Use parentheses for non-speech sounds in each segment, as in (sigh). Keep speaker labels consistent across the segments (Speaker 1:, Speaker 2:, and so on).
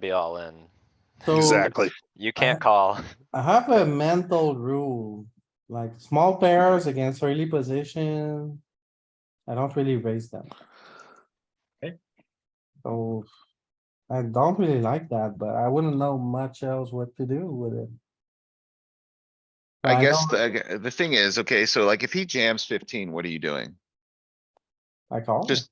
Speaker 1: be all in.
Speaker 2: So-
Speaker 3: Exactly.
Speaker 1: You can't call. (laughs)
Speaker 2: I have a mental rule, like small pairs against early position. I don't really raise them.
Speaker 4: Okay.
Speaker 2: So I don't really like that, but I wouldn't know much else what to do with it.
Speaker 3: I guess
Speaker 2: know
Speaker 3: the, the thing is, okay, so like if he jams fifteen, what are you doing?
Speaker 2: I call.
Speaker 3: just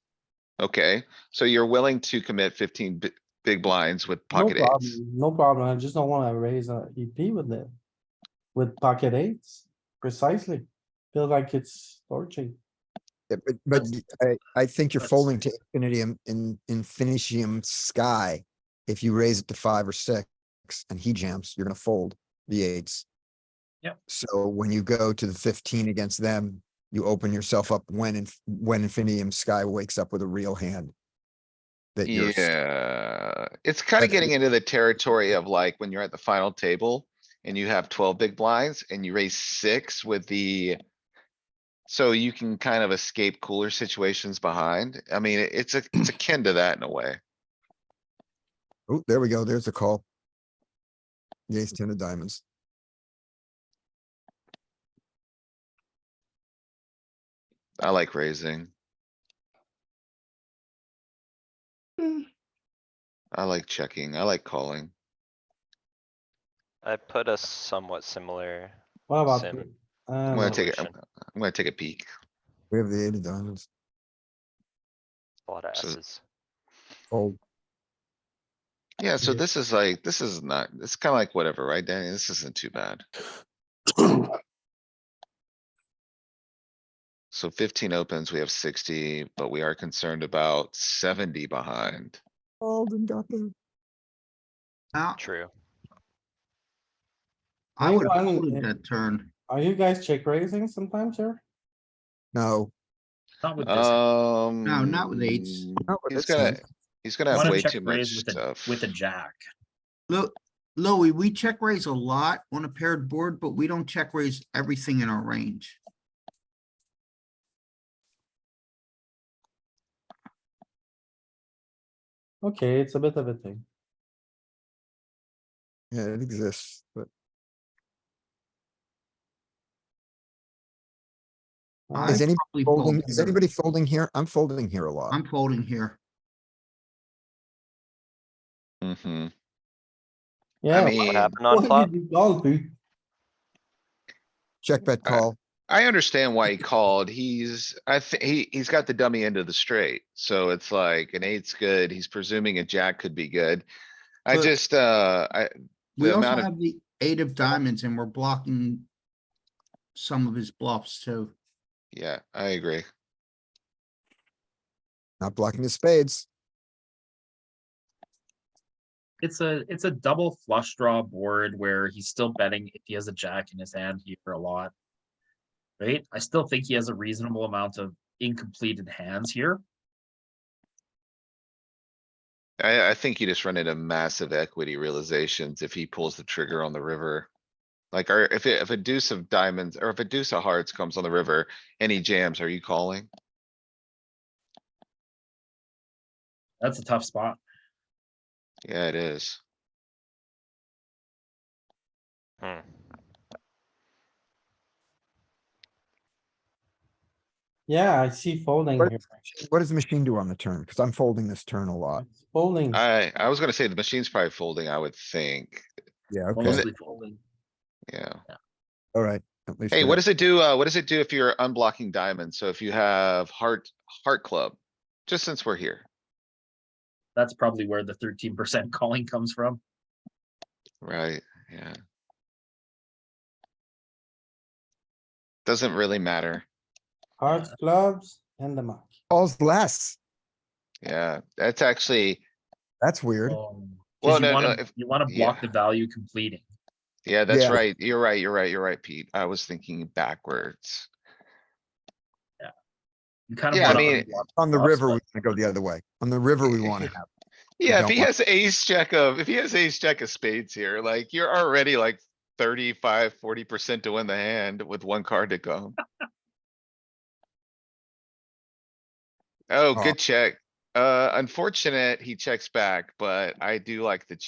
Speaker 3: Okay, so you're willing to commit fifteen bi- big blinds with
Speaker 2: No
Speaker 3: pocket eights?
Speaker 2: problem, No problem. I just don't wanna raise a EP with it. With pocket eights, precisely. Feels like it's torching.
Speaker 5: Yeah, but, but y- I, I think you're
Speaker 4: that's-
Speaker 5: folding to infinitum in infinitium sky. If you raise it to five or six and he jams, you're gonna fold the eights.
Speaker 4: Yep.
Speaker 5: So when you go to the fifteen against them, you open yourself up when, inf- when infinitum sky wakes up with a real hand. That you're, s-
Speaker 3: Yeah, it's kinda
Speaker 5: That's-
Speaker 3: getting into the territory of like when you're at the final table and you have twelve big blinds and you raise six with the. So you can kind of escape cooler situations behind. I mean, it- it's a, it's akin to that in a way.
Speaker 5: oh, there we go, there's the call. The ace ten of diamonds.
Speaker 3: I like raising.
Speaker 6: Mm.
Speaker 3: I like checking. I like calling.
Speaker 1: I put a somewhat similar.
Speaker 2: What about?
Speaker 1: Sim.
Speaker 2: you? Uh,
Speaker 3: I'm
Speaker 2: no.
Speaker 3: gonna take, a- I'm
Speaker 1: Evolution.
Speaker 3: I'm gonna take a peek.
Speaker 5: We have the eight of diamonds.
Speaker 1: A lot of
Speaker 3: So-
Speaker 1: S's.
Speaker 5: Fold.
Speaker 3: Yeah, so
Speaker 2: Yeah.
Speaker 3: this is like, this is not, it's kinda like whatever, right, Danny? This isn't too bad.
Speaker 6: (coughs)
Speaker 3: So fifteen opens, we have sixty, but we are concerned about seventy behind.
Speaker 5: Fold and got there.
Speaker 6: Now,
Speaker 1: True.
Speaker 6: I would have
Speaker 2: Anyone in-
Speaker 6: folded that turn.
Speaker 2: Are you guys check raising sometimes here?
Speaker 5: No.
Speaker 4: Not with this.
Speaker 3: Um.
Speaker 6: not with eights.
Speaker 5: not with
Speaker 3: He's
Speaker 5: this hand.
Speaker 3: gonna, he's gonna have
Speaker 4: Wanna
Speaker 3: way
Speaker 4: check
Speaker 3: too much
Speaker 4: raise with a,
Speaker 3: stuff.
Speaker 4: with a jack.
Speaker 6: Look, Louis, we check raise a lot on a paired board, but we don't check raise everything in our range.
Speaker 2: Okay, it's a bit of a thing.
Speaker 5: Yeah, it exists, but
Speaker 2: Uh,
Speaker 5: is
Speaker 6: I'm
Speaker 5: anybody
Speaker 6: probably
Speaker 5: folding,
Speaker 6: folding
Speaker 5: is
Speaker 6: here.
Speaker 5: anybody folding here? I'm folding here a lot.
Speaker 6: I'm folding here.
Speaker 3: hmm
Speaker 2: Yeah.
Speaker 3: mean-
Speaker 1: What
Speaker 3: Hey,
Speaker 1: happened
Speaker 2: What
Speaker 1: on
Speaker 2: did
Speaker 1: flop?
Speaker 2: you call, dude?
Speaker 5: Check bet
Speaker 3: Uh,
Speaker 5: call.
Speaker 3: I understand why he called. He's, I think, he, he's got the dummy end of the straight, so it's like an eight's good. He's presuming a jack could be good. I
Speaker 6: But-
Speaker 3: just, uh, I,
Speaker 6: We
Speaker 3: The
Speaker 6: also
Speaker 3: amount of-
Speaker 6: have the eight of diamonds and we're blocking some of his bluffs too.
Speaker 3: yeah, I agree.
Speaker 5: Not blocking the spades.
Speaker 4: It's a, it's a double flush draw board where he's still betting if he has a jack in his hand here a lot. Right? I still think he has a reasonable amount of incompleted hands here.
Speaker 3: I, I think you just run into massive equity realizations if he pulls the trigger on the river. Like, or if, it- if a deuce of diamonds or if a deuce of hearts comes on the river and he jams, are you calling?
Speaker 4: That's a tough spot.
Speaker 3: Yeah, it is.
Speaker 1: Hmm.
Speaker 2: Yeah, I see folding
Speaker 5: But-
Speaker 2: here.
Speaker 5: What does the machine do on the turn? Because I'm folding this turn a lot.
Speaker 2: It's Folding.
Speaker 3: I, I was gonna say the machine's probably folding, I would think.
Speaker 5: Yeah, okay,
Speaker 4: Mostly folding.
Speaker 3: Yeah.
Speaker 5: alright. at least
Speaker 3: Hey,
Speaker 5: they're-
Speaker 3: what does it do? Uh, what does it do if you're unblocking diamonds? So if you have heart, heart club, just since we're here,
Speaker 4: That's probably where the thirteen percent (laughs) calling comes from.
Speaker 3: right? Yeah. Doesn't really matter.
Speaker 2: Hearts, clubs, and the muck.
Speaker 5: Calls less.
Speaker 3: Yeah, that's actually,
Speaker 5: That's weird.
Speaker 4: Oh,
Speaker 3: Well,
Speaker 4: 'cause you
Speaker 3: no,
Speaker 4: wanna-
Speaker 3: no, if-
Speaker 4: You wanna
Speaker 3: yeah.
Speaker 4: block the value completing.
Speaker 3: yeah, that's
Speaker 5: Yeah.
Speaker 3: right. You're right. You're right. You're right, Pete. I was thinking backwards.
Speaker 4: You kind of.
Speaker 3: Yeah, I
Speaker 4: wanna
Speaker 3: mean,
Speaker 4: unblock
Speaker 5: On the
Speaker 4: bluffs,
Speaker 5: river,
Speaker 4: but-
Speaker 5: we wanna go the other way. On the river, we wanna have.
Speaker 3: Yeah, if
Speaker 5: don't
Speaker 3: he
Speaker 5: want-
Speaker 3: has ace jack of, if he has ace jack of spades here, like you're already like 35, 40 percent to win the hand with one card to go. Oh,
Speaker 5: Oh.
Speaker 3: good check. Uh, unfortunate, he checks back, but I do like the